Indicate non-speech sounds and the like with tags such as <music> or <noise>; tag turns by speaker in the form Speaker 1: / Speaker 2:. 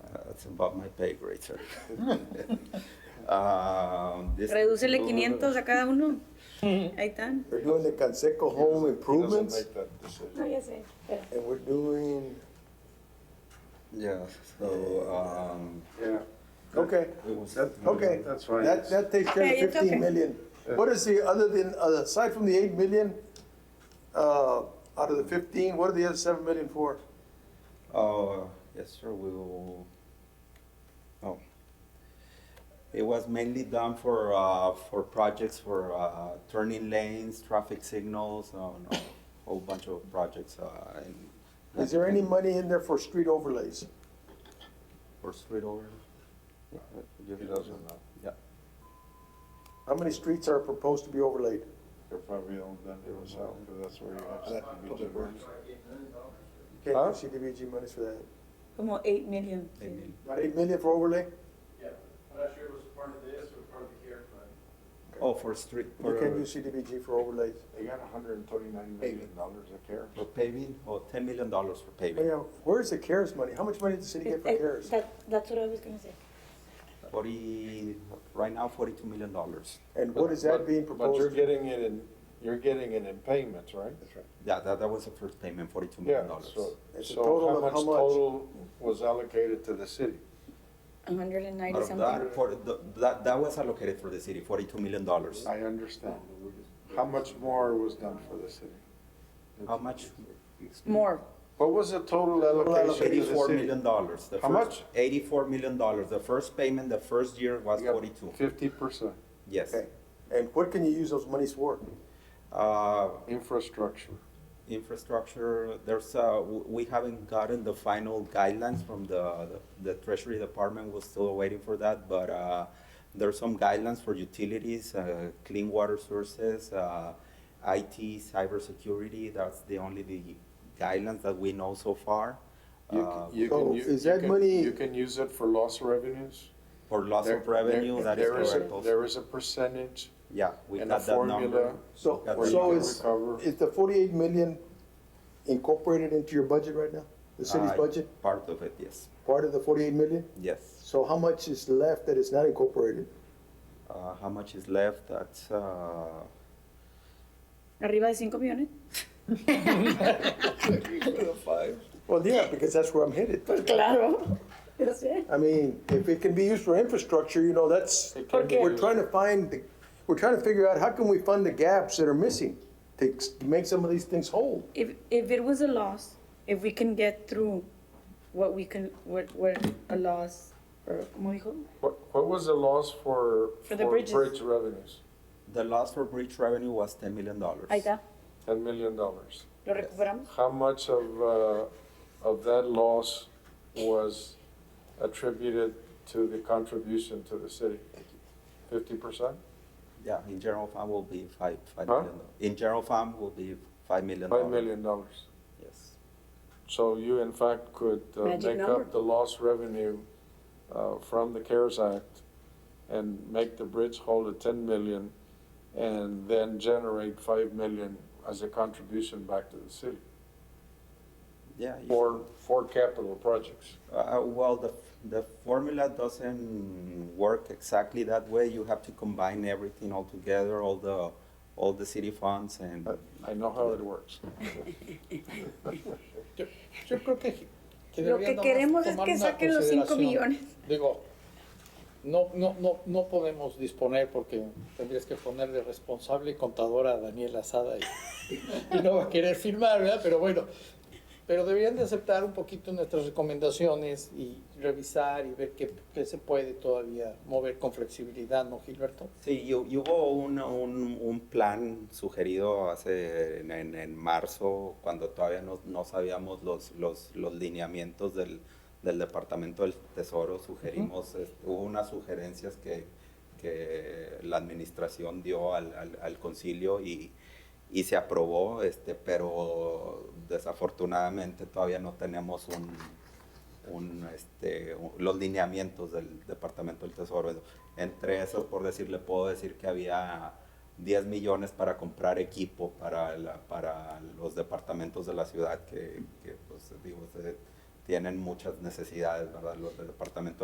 Speaker 1: That's above Uh, my pay grade,
Speaker 2: <laughs>
Speaker 1: sir. Um, this-
Speaker 3: Redúcele 500 a cada uno. Ahí están.
Speaker 2: We're doing the Canseco home improvements
Speaker 3: No, ya sé.
Speaker 2: and we're doing,
Speaker 1: Yeah, so, um,
Speaker 4: Yeah,
Speaker 2: okay,
Speaker 1: it was.
Speaker 2: okay.
Speaker 4: That's fine.
Speaker 2: That, that takes care
Speaker 3: Yeah,
Speaker 2: of
Speaker 3: it's okay.
Speaker 2: fifteen million. What is the, other than, uh, aside from the eight million, uh, out of the fifteen, what are the other seven million for?
Speaker 1: Oh, yes, sir, we will, oh. It was mainly done for, uh, for projects for, uh, turning lanes, traffic signals, um, a whole bunch of projects, uh, and.
Speaker 2: Is there any money in there for street overlays?
Speaker 1: For street over?
Speaker 4: He doesn't know.
Speaker 1: Yeah,
Speaker 2: How many streets are proposed to be overlaid?
Speaker 4: They're probably all done to himself, because that's where you have to be different.
Speaker 2: Can't get CDBG monies for that.
Speaker 3: Como 8 million. Eh,
Speaker 1: they need-
Speaker 2: Eight million for overlay?
Speaker 5: Yeah, I'm not sure it was part of this or part of the CARES money.
Speaker 1: oh, for street,
Speaker 2: You
Speaker 4: uh,
Speaker 2: can't
Speaker 1: for,
Speaker 2: use CDBG for overlays.
Speaker 4: They got hundred and thirty-nine million dollars of care.
Speaker 1: for paving, oh, ten million dollars for
Speaker 2: Oh,
Speaker 1: paving,
Speaker 2: yeah, where's the CARES money? How much money did the city get for CARES?
Speaker 3: eh, that's what I was going to say.
Speaker 1: forty, right now forty-two million dollars.
Speaker 2: And what is
Speaker 4: But-
Speaker 2: that being
Speaker 4: But you're
Speaker 2: proposed?
Speaker 4: getting it in, you're getting it in payments, right? That's right.
Speaker 1: Yeah, that, that was the first payment, forty-two million
Speaker 4: Yeah,
Speaker 1: dollars.
Speaker 4: so,
Speaker 2: It's a
Speaker 4: so
Speaker 2: total
Speaker 4: how
Speaker 2: of
Speaker 4: much
Speaker 2: how much?
Speaker 4: total was allocated to the city?
Speaker 3: 190
Speaker 1: Out of
Speaker 3: something.
Speaker 1: that, for, the- that, that was allocated for the city, forty-two million dollars.
Speaker 4: I understand. How much more was done for the city?
Speaker 1: How much?
Speaker 3: More.
Speaker 4: What was the total allocation to the
Speaker 1: Eighty-four
Speaker 4: city?
Speaker 1: million dollars.
Speaker 4: How much?
Speaker 1: Eighty-four million dollars. The first payment, the first year was forty-two,
Speaker 4: Fifty percent,
Speaker 1: yes.
Speaker 2: Okay, and what can you use those monies for?
Speaker 1: Uh,
Speaker 4: infrastructure.
Speaker 1: infrastructure, there's, uh, w- we haven't gotten the final guidelines from the, the Treasury Department, we're still waiting for that, but, uh, there's some guidelines for utilities, uh, clean water sources, uh, IT, cybersecurity, that's the only the guidelines that we know so far.
Speaker 4: You
Speaker 1: Uh,
Speaker 4: can, you
Speaker 2: so
Speaker 4: can, u-
Speaker 2: is
Speaker 4: you
Speaker 2: that
Speaker 4: can-
Speaker 2: money-
Speaker 4: You can use it for lost revenues?
Speaker 1: For loss
Speaker 4: There-
Speaker 1: of revenue,
Speaker 4: there-
Speaker 1: that is
Speaker 4: there a-
Speaker 1: correct also.
Speaker 4: There is a percentage
Speaker 1: Yeah, we
Speaker 4: and a
Speaker 1: got that number.
Speaker 4: formula.
Speaker 2: So,
Speaker 1: Got
Speaker 4: where you
Speaker 2: so
Speaker 4: can
Speaker 2: is,
Speaker 4: recover.
Speaker 2: is the forty-eight million incorporated into your budget right now? The city's
Speaker 1: Uh,
Speaker 2: budget,
Speaker 1: Part of it, yes,
Speaker 2: part of the forty-eight million?
Speaker 1: yes.
Speaker 2: So how much is left that is not incorporated?
Speaker 1: Uh, how much is left? That's, uh,
Speaker 3: Arriba de 5 millones.
Speaker 2: Well, yeah, because that's where I'm headed.
Speaker 3: <laughs> Claro. Yo sé.
Speaker 2: I mean, if it can be used for infrastructure, you know, that's,
Speaker 4: It can be
Speaker 2: we're
Speaker 4: used.
Speaker 2: trying to find, the- we're trying to figure out how can we fund the gaps that are missing to ex- make some of these things whole?
Speaker 3: If, if it was a loss, if we can get through what we can, what, what a loss, or como dijo?
Speaker 4: What, what was the loss for?
Speaker 3: For the bridges.
Speaker 4: Bridge revenues,
Speaker 1: The loss for bridge revenue was ten million dollars.
Speaker 3: Ahí está.
Speaker 4: ten million dollars.
Speaker 3: Lo recuperamos.
Speaker 4: How much of, uh, of that loss was attributed to the contribution to the city? Fifty percent?
Speaker 1: Yeah, in general fund will be five, five
Speaker 4: Huh?
Speaker 1: million. dollars. In general fund will be five million.
Speaker 4: Five
Speaker 1: dollars.
Speaker 4: million dollars.
Speaker 1: Yes.
Speaker 4: So you in fact could uh,
Speaker 3: Magic
Speaker 4: make
Speaker 3: number.
Speaker 4: up the lost revenue uh, from the CARES Act and make the bridge whole at ten million and then generate five million as a contribution back to the city
Speaker 1: Yeah. you-
Speaker 4: for, for capital projects.
Speaker 1: Uh, well, the, the formula doesn't work exactly that way. You have to combine everything all together, all the, all the city funds and.
Speaker 4: I know how it works.
Speaker 6: Yo, yo creo que, que
Speaker 3: Lo que
Speaker 6: deberían nada más
Speaker 3: queremos es
Speaker 6: tomar
Speaker 3: que
Speaker 6: una
Speaker 3: saquen los 5
Speaker 6: consideración.
Speaker 3: millones.
Speaker 6: Digo, no, no, no, no podemos disponer porque tendrías que ponerle responsable y contadora a Daniel Asada y, y no va a querer firmar, ¿verdad? Pero bueno, pero deberían de aceptar un poquito nuestras recomendaciones y revisar y ver qué, qué se puede todavía mover con flexibilidad, ¿no, Gilberto?
Speaker 1: Sí, y, y hubo un, un, un plan sugerido hace en, en- en marzo, cuando todavía no, no sabíamos los, los, los lineamientos del, del Departamento del Tesoro, sugerimos, eh, hubo unas sugerencias que, que la administración dio al, al, al concilio y, y se aprobó, este, pero desafortunadamente todavía no tenemos un, un, este, un- los lineamientos del Departamento del Tesoro. Entre esos, por decirle, puedo decir que había 10 millones para comprar equipo para, la- para los departamentos de la ciudad que, que, pues, digo, se- tienen muchas necesidades, ¿verdad? Los del departamento